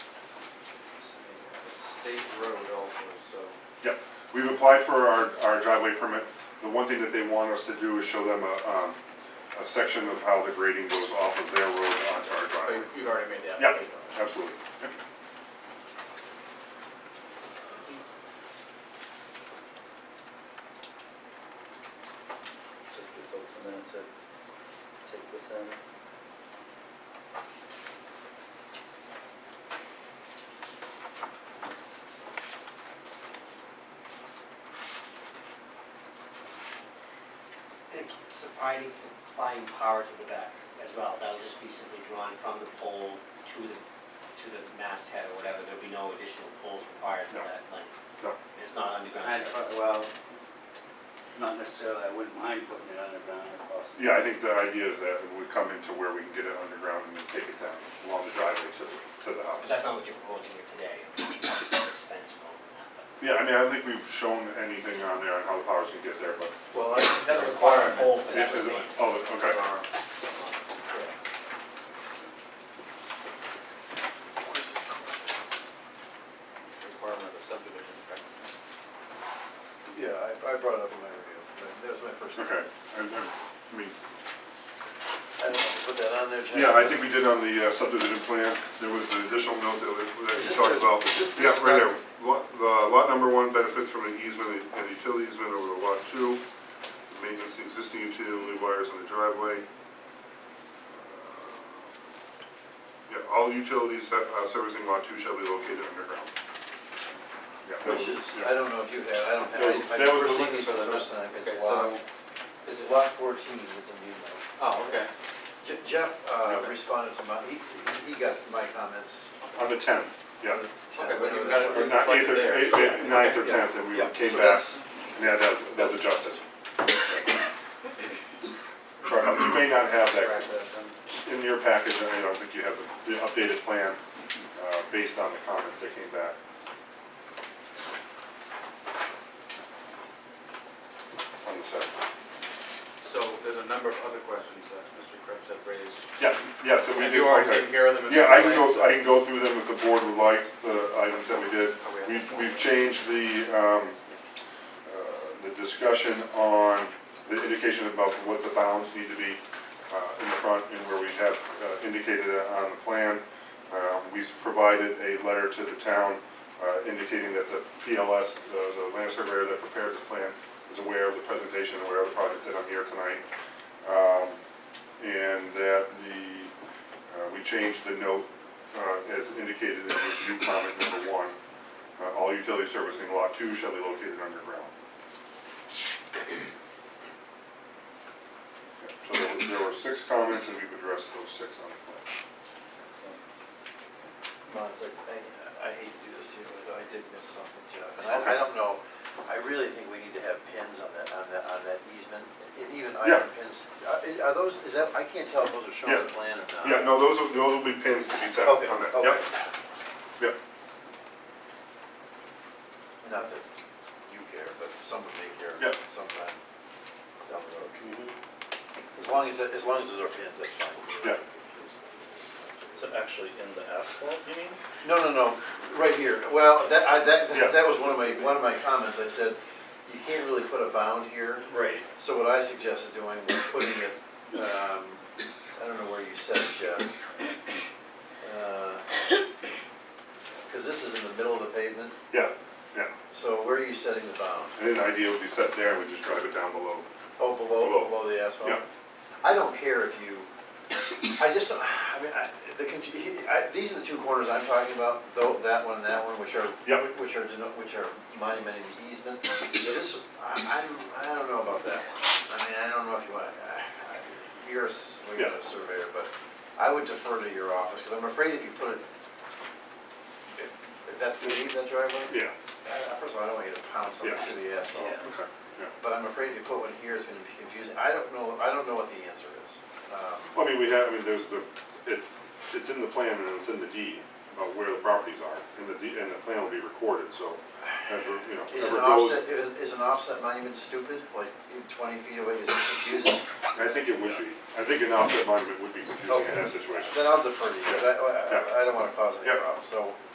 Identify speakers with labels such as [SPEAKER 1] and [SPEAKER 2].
[SPEAKER 1] state road also, so.
[SPEAKER 2] Yep, we've applied for our, our driveway permit. The one thing that they want us to do is show them a, um, a section of how the grading goes off of their road onto our
[SPEAKER 3] But
[SPEAKER 2] driveway.
[SPEAKER 3] you- you've already made the
[SPEAKER 2] Yep,
[SPEAKER 3] application.
[SPEAKER 2] absolutely. Yep.
[SPEAKER 3] Just give folks a minute to take this in.
[SPEAKER 4] And providing some applying power to the back as well, that'll just be simply drawn from the pole to the, to the masthead or whatever, there'll be no additional poles required for
[SPEAKER 2] No.
[SPEAKER 4] that length.
[SPEAKER 2] No. uh,
[SPEAKER 4] It's not underground.
[SPEAKER 5] I,
[SPEAKER 4] service.
[SPEAKER 5] well, not necessarily, I wouldn't mind putting it underground across.
[SPEAKER 2] Yeah, I think the idea is that we come into where we can get it underground and then take it down along the driveway to, the- to the
[SPEAKER 4] But
[SPEAKER 2] house.
[SPEAKER 4] that's not what you're proposing here today, obviously it's expensive and all that, but.
[SPEAKER 2] Yeah, I mean, I think we've shown anything on there on how the powers can get there, but.
[SPEAKER 3] Well, it doesn't require a poll for
[SPEAKER 2] Yeah,
[SPEAKER 3] that
[SPEAKER 2] is it-
[SPEAKER 3] state.
[SPEAKER 2] Oh, okay.
[SPEAKER 3] Requirement of the subdivision, correct?
[SPEAKER 1] Yeah, I, I brought it up in my review, but that was my first.
[SPEAKER 2] Okay, I, I mean,
[SPEAKER 1] I don't know, if you put that on there. Jack.
[SPEAKER 2] yeah, I think we did on the uh, subdivision plan, there was an additional note that we, that
[SPEAKER 1] Is
[SPEAKER 2] we
[SPEAKER 1] this
[SPEAKER 2] talked
[SPEAKER 1] the-
[SPEAKER 2] about.
[SPEAKER 1] is this the
[SPEAKER 2] Yeah, right there,
[SPEAKER 1] stuff-
[SPEAKER 2] lot, the lot number one benefits from an easement and utility easement over the lot two, maintenance of existing utility wires on the driveway. Uh, Yeah, all utilities se- uh, servicing lot two shall be located underground. Yeah, that
[SPEAKER 1] Which
[SPEAKER 2] was-
[SPEAKER 1] is,
[SPEAKER 2] yeah.
[SPEAKER 1] I don't know if you have, I don't
[SPEAKER 2] That was-
[SPEAKER 1] have,
[SPEAKER 2] that was
[SPEAKER 1] I've
[SPEAKER 2] the
[SPEAKER 1] seen
[SPEAKER 2] one-
[SPEAKER 1] these for the first time, it's
[SPEAKER 3] Okay, so-
[SPEAKER 1] lot, it's lot fourteen, it's a new one.
[SPEAKER 3] Oh, okay.
[SPEAKER 1] Je- Jeff uh,
[SPEAKER 2] Okay.
[SPEAKER 1] responded to my, he, he got my comments.
[SPEAKER 2] On the tenth, yeah,
[SPEAKER 3] Okay, but
[SPEAKER 1] Whatever
[SPEAKER 3] you
[SPEAKER 1] that
[SPEAKER 3] got it
[SPEAKER 1] was.
[SPEAKER 2] or not,
[SPEAKER 3] Reflected
[SPEAKER 2] eighth or,
[SPEAKER 3] there.
[SPEAKER 2] eighth- eighth- ninth or
[SPEAKER 1] Okay, yeah.
[SPEAKER 2] tenth, and we
[SPEAKER 1] Yeah,
[SPEAKER 2] came
[SPEAKER 1] uh, so
[SPEAKER 2] back,
[SPEAKER 1] that's-
[SPEAKER 2] yeah, that, that's adjusted. Sorry, you may not have that
[SPEAKER 3] Correct, that's done.
[SPEAKER 2] in your package, I don't think you have the the updated plan uh, based on the comments that came back. On the set.
[SPEAKER 3] So there's a number of other questions that Mr. Krebs had raised.
[SPEAKER 2] Yeah, yeah, so we
[SPEAKER 3] Have
[SPEAKER 2] did.
[SPEAKER 3] you already
[SPEAKER 2] okay.
[SPEAKER 3] taken care of them? in
[SPEAKER 2] Yeah,
[SPEAKER 3] that
[SPEAKER 2] I can
[SPEAKER 3] way? Oh,
[SPEAKER 2] go, I can go through them if the board would like, the items that we did.
[SPEAKER 3] Okay.
[SPEAKER 2] We've, we've changed the, um, uh, the discussion on the indication about what the bounds need to be, uh, in the front and where we have uh, indicated it on the plan. Uh, we've provided a letter to the town, uh, indicating that the PLS, the, the land surveyor that prepared this plan is aware of the presentation, and aware of the project that I'm here tonight. Um, and that the, uh, we changed the note, uh, as indicated in review comment number one. Uh, All utility servicing lot two shall be located underground. Yeah, So there were- there were six comments, and we've addressed those six on the plan.
[SPEAKER 1] So, Come on, it's like, I, I hate to do this to you, but I did miss something, Jeff, and I, I don't know, I really think we need to have pins on that, on that, on that easement, and even
[SPEAKER 2] Yeah.
[SPEAKER 1] iron pins. Uh, Are- Are those, is that, I can't tell if those are shown on the plan or not.
[SPEAKER 2] Yeah, no, those will, those will be pins to be set on
[SPEAKER 1] Okay,
[SPEAKER 2] that.
[SPEAKER 1] okay.
[SPEAKER 2] Yep, yep.
[SPEAKER 1] Not that you care, but someone may care
[SPEAKER 2] Yeah.
[SPEAKER 1] sometime down the road. As long as, as long as those are pins, that's fine.
[SPEAKER 2] Yeah.
[SPEAKER 6] So actually in the asphalt, you mean?
[SPEAKER 1] No, no, no, right here. Well, that, I, that,
[SPEAKER 2] Yeah.
[SPEAKER 1] that was one of my, one of my comments. I said, you can't really put a bound here.
[SPEAKER 6] Right.
[SPEAKER 1] So what I suggested doing was putting it, um, I don't know where you set it, Jeff. Uh, Cause this is in the middle of the pavement,
[SPEAKER 2] Yeah, yeah.
[SPEAKER 1] so where are you setting the bound?
[SPEAKER 2] And then the idea would be set there, and we just drive it down below.
[SPEAKER 1] Oh, below,
[SPEAKER 2] Below.
[SPEAKER 1] below the asphalt?
[SPEAKER 2] Yeah.
[SPEAKER 1] I don't care if you, I just don't, I mean, I, the, confu- he- I, these are the two corners I'm talking about, though, that one and that one, which are,
[SPEAKER 2] Yeah.
[SPEAKER 1] which are, deno- which are monumented easement. But This, I, I'm, I don't know about that one. I mean, I don't know if you want, I- you're, a s- well, you're
[SPEAKER 2] Yeah.
[SPEAKER 1] a surveyor, but I would defer to your office, because I'm afraid if you put it, if- if that's gonna leave that driveway,
[SPEAKER 2] Yeah,
[SPEAKER 1] I- I- first of all, I don't want you to pound something
[SPEAKER 2] Yeah.
[SPEAKER 1] through the asphalt.
[SPEAKER 6] Yeah.
[SPEAKER 2] okay, yeah.
[SPEAKER 1] But I'm afraid if you put one here, it's gonna be confusing. I don't know, I don't know what the answer is. Um,
[SPEAKER 2] Well, I mean, we have, I mean, there's the, it's, it's in the plan and it's in the deed about where the properties are, and the deed, and the plan will be recorded, so, as we're, you know,
[SPEAKER 1] Is
[SPEAKER 2] whatever
[SPEAKER 1] an
[SPEAKER 2] goes.
[SPEAKER 1] offset, is- is an offset monument stupid? Like, you're twenty feet away, is it confusing?
[SPEAKER 2] I think it would be, I think an offset monument would be confusing in that situation.
[SPEAKER 1] Then I'll defer to you, 'cause I, I- I don't wanna cause any
[SPEAKER 2] Yeah.
[SPEAKER 1] problems, so.